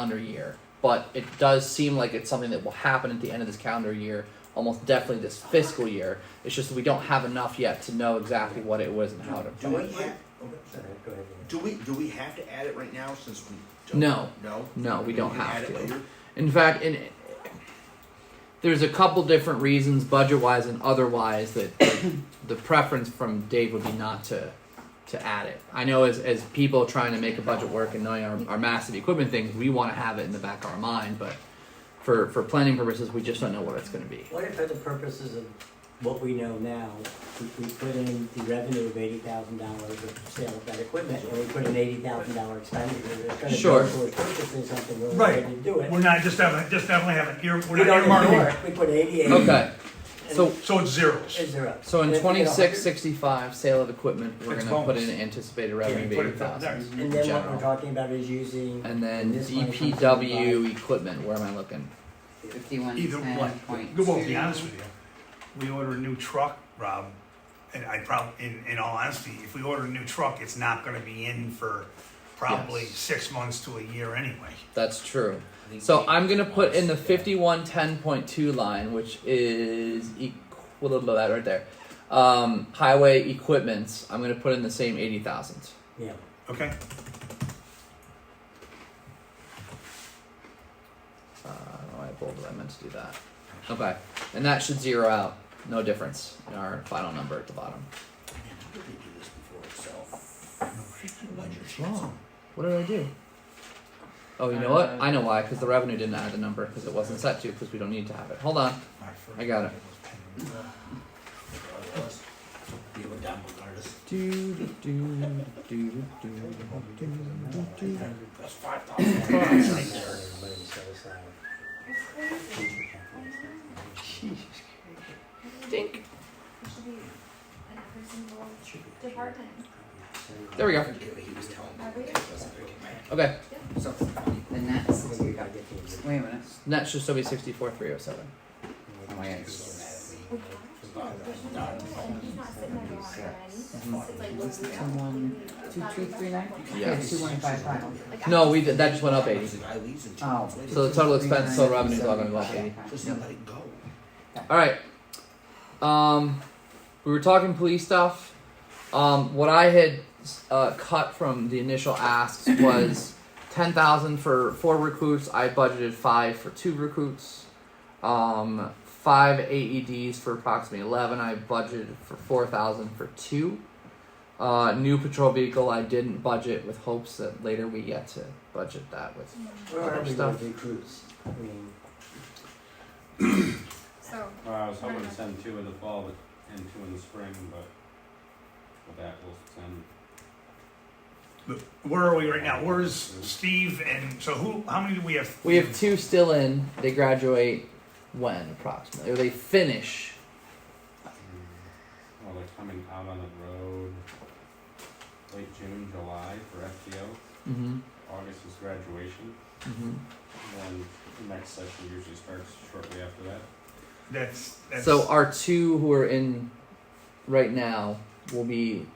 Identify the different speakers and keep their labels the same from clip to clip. Speaker 1: calendar year, but it does seem like it's something that will happen at the end of this calendar year, almost definitely this fiscal year. It's just that we don't have enough yet to know exactly what it was and how to.
Speaker 2: Do we have,
Speaker 3: Sorry, go ahead. Ian.
Speaker 2: do we, do we have to add it right now since we don't?
Speaker 1: No.
Speaker 2: No?
Speaker 1: No, we don't
Speaker 2: can
Speaker 1: have
Speaker 2: add
Speaker 1: to.
Speaker 2: it later?
Speaker 1: In fact, in, there's a couple different reasons, budget-wise and otherwise, that the preference from Dave would be not to to add it. I know as as people trying to make a budget work and knowing our, our massive equipment things, we want to have it in the back of our mind, but for for planning purposes, we just don't know what it's going to be.
Speaker 3: What if for the purposes of what we know now, we, we put in the revenue of eighty thousand dollars of sale of that equipment, and we put an eighty thousand dollar expenditure, we're trying to
Speaker 1: Sure.
Speaker 3: go towards purchasing something, we're
Speaker 4: Right.
Speaker 3: ready to do it.
Speaker 4: We're not just having, just definitely having, ear-
Speaker 3: We
Speaker 4: we're
Speaker 3: don't
Speaker 4: not
Speaker 3: ignore
Speaker 4: earmarking,
Speaker 3: it, we put eighty-eight.
Speaker 1: Okay, so
Speaker 4: so it's zeros.
Speaker 3: Is there up?
Speaker 1: so in
Speaker 3: And if we
Speaker 1: twenty
Speaker 3: get a
Speaker 1: six
Speaker 3: hundred-
Speaker 1: sixty five sale of equipment, we're
Speaker 4: It's
Speaker 1: going to put in
Speaker 4: bonus.
Speaker 1: an anticipated
Speaker 4: Yeah,
Speaker 1: revenue of
Speaker 4: put it
Speaker 1: eighty
Speaker 4: there.
Speaker 1: thousand,
Speaker 3: And then what
Speaker 1: general.
Speaker 3: we're talking about is using,
Speaker 1: and then
Speaker 3: This money comes from
Speaker 1: DPW equipment. Where am I looking?
Speaker 5: Fifty-one
Speaker 4: Either
Speaker 5: ten point two.
Speaker 4: one, well, to be honest with you, we order a new truck, Rob, and I probably, in, in all honesty, if we order a new truck, it's not gonna be in for probably
Speaker 1: Yes.
Speaker 4: six months to a year anyway.
Speaker 1: That's true.
Speaker 3: E
Speaker 1: So I'm gonna put in the fifty-one ten point two line, which is equal to that right there. Um, highway equipments. I'm gonna put in the same eighty thousand.
Speaker 3: yeah,
Speaker 4: Okay,
Speaker 1: Uh, why I bolded. I meant to do that. Okay, and that should zero out. No difference in our final number at the bottom.
Speaker 2: Man, how did they do this before itself? Ledger sheets.
Speaker 1: Wrong. What did I do? Oh, you know what? I know why. Because the revenue didn't add the number because it wasn't set to. Because we don't need to have it. Hold on. I got it.
Speaker 2: Whatever it was. oh, Be able to download artists.
Speaker 1: Do do do do do do do.
Speaker 2: That's five thousand bucks right
Speaker 3: and
Speaker 2: there.
Speaker 3: everybody set aside.
Speaker 1: Dink.
Speaker 3: Should be-
Speaker 6: Department.
Speaker 3: uh,
Speaker 1: There we go.
Speaker 2: Okay, he was telling me.
Speaker 6: Are we-
Speaker 2: it wasn't very good, man.
Speaker 1: Okay.
Speaker 2: Something funny.
Speaker 5: The next,
Speaker 3: I think we gotta get the-
Speaker 5: wait a minute,
Speaker 1: Net should still be sixty-four three oh seven.
Speaker 5: oh my god. Someone, two, two, three, nine?
Speaker 1: Yeah.
Speaker 5: Two, one, five, five.
Speaker 1: No, we did, that just went up eighty.
Speaker 2: I leave and
Speaker 5: Oh.
Speaker 2: translate
Speaker 1: So
Speaker 2: it.
Speaker 1: the total expense, total revenue is all gonna go up
Speaker 5: Okay.
Speaker 1: eighty.
Speaker 2: Just let it go.
Speaker 1: All right. Um, we were talking police stuff. Um, what I had uh, cut from the initial asks was ten thousand for four recruits. I budgeted five for two recruits. Um, five AEDs for approximately eleven. I budgeted for four thousand for two. Uh, new patrol vehicle. I didn't budget with hopes that later we get to budget that with.
Speaker 3: Where are we
Speaker 1: Stuff.
Speaker 3: with recruits? I mean,
Speaker 6: So,
Speaker 7: Well, I was hoping to send two in the fall, but, and two in the spring, but with that will send.
Speaker 4: But where are we right now? Where's Steve and, so who, how many do we have?
Speaker 1: We have two still in. They graduate when approximately, or they finish.
Speaker 7: mm, Well, they're coming out on the road late June, July for FTO.
Speaker 1: Mm-hmm.
Speaker 7: August is graduation,
Speaker 1: Mm-hmm.
Speaker 7: then the next session usually starts shortly after that.
Speaker 4: That's, that's.
Speaker 1: So our two who are in right now will be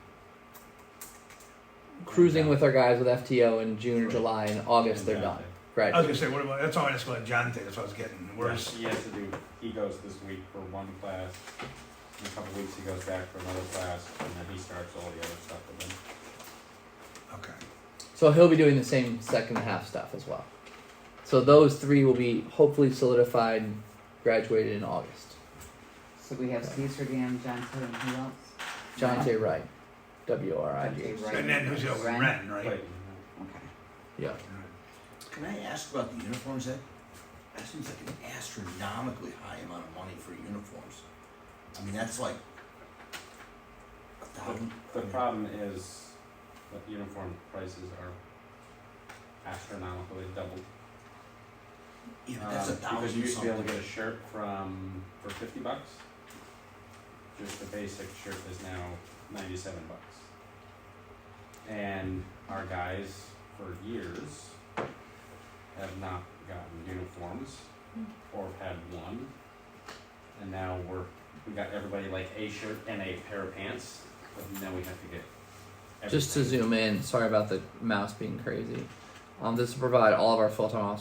Speaker 1: cruising with our guys with FTO in June or July. In August, they're done.
Speaker 4: I was
Speaker 1: Graduate.
Speaker 4: gonna say, what about, that's all I just let John take, that's what I was getting, where's,
Speaker 7: He has to do, he goes this week for one class, in a couple weeks he goes back for another class, and then he starts all the other stuff with them.
Speaker 4: okay.
Speaker 1: So he'll be doing the same second half stuff as well. So those three will be hopefully solidified, graduated in August.
Speaker 5: So we have Steve Sergan, John Hood, and who else?
Speaker 1: John J. Wright, W R I G.
Speaker 5: John J. Wright.
Speaker 4: And then who's the other one? Ren, right?
Speaker 7: Clayton, huh?
Speaker 5: Okay.
Speaker 1: Yeah.
Speaker 2: Can I ask about the uniforms? That, that seems like an astronomically high amount of money for uniforms. I mean, that's like a thousand.
Speaker 7: The problem is that uniform prices are astronomically doubled.
Speaker 2: Yeah, but that's a
Speaker 7: Um, Because
Speaker 2: thousand
Speaker 7: you used to be able to
Speaker 2: something.
Speaker 7: get a shirt from, for fifty bucks. Just the basic shirt is now ninety-seven bucks. And our guys for years have not gotten uniforms or had one. And now we're, we got everybody like a shirt and a pair of pants, but now we have to get
Speaker 1: Just to
Speaker 7: everything.
Speaker 1: zoom in, sorry about the mouse being crazy. Um, this will provide all of our full-time officers